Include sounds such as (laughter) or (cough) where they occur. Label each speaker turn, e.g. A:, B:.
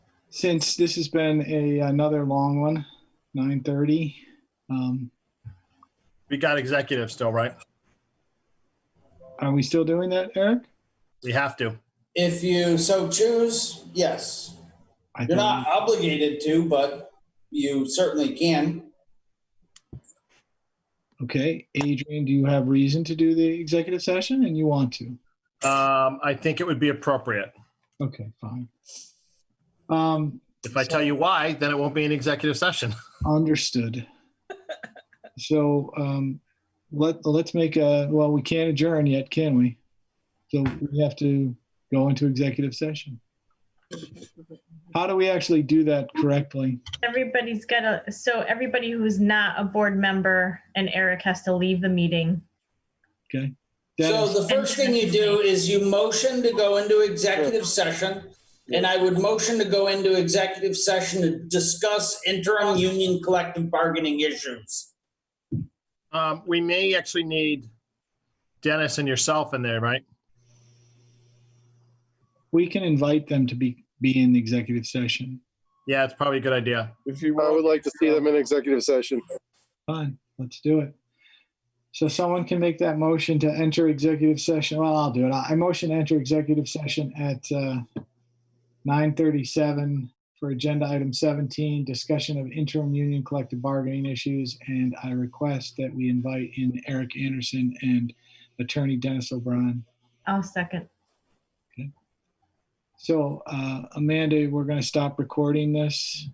A: since this has been a another long one, nine thirty. Um,
B: We got executive still, right?
A: are we still doing that, Eric?
B: We have to.
C: If you so choose, yes.
A: I
C: You're
A: thought-
C: not obligated to, but you certainly can.
A: Okay, Adrian, do you have reason to do the executive session and you want to?
B: Um, I think it would be appropriate.
A: Okay, fine. Um,
B: If I tell you why, then it won't be an executive session. (laughs)
C: (laughs)
A: understood. So, um, let, let's make a, well, we can't adjourn yet, can we? So we have to go into executive session. How do we actually do that correctly?
D: Everybody's got a, so everybody who's not a board member and Eric has to leave the meeting.
C: So
A: Dennis,
C: the first thing you do is you motion to go into executive session. And I would motion to go into executive session to discuss interim union collective bargaining issues.
B: Um, we may actually need Dennis and yourself in there, right?
A: we can invite them to be, be in the executive session.
B: Yeah, it's probably a good idea.
E: If you, I would like to see them in executive session.
A: Fine, let's do it. So someone can make that motion to enter executive session. Well, I'll do it. I I motion to enter executive session at uh, 9:37 for agenda item 17, discussion of interim union collective bargaining issues. And I request that we invite in Eric Anderson and attorney Dennis O'Brien.
D: I'll second.
A: So uh, Amanda, we're going to stop recording this.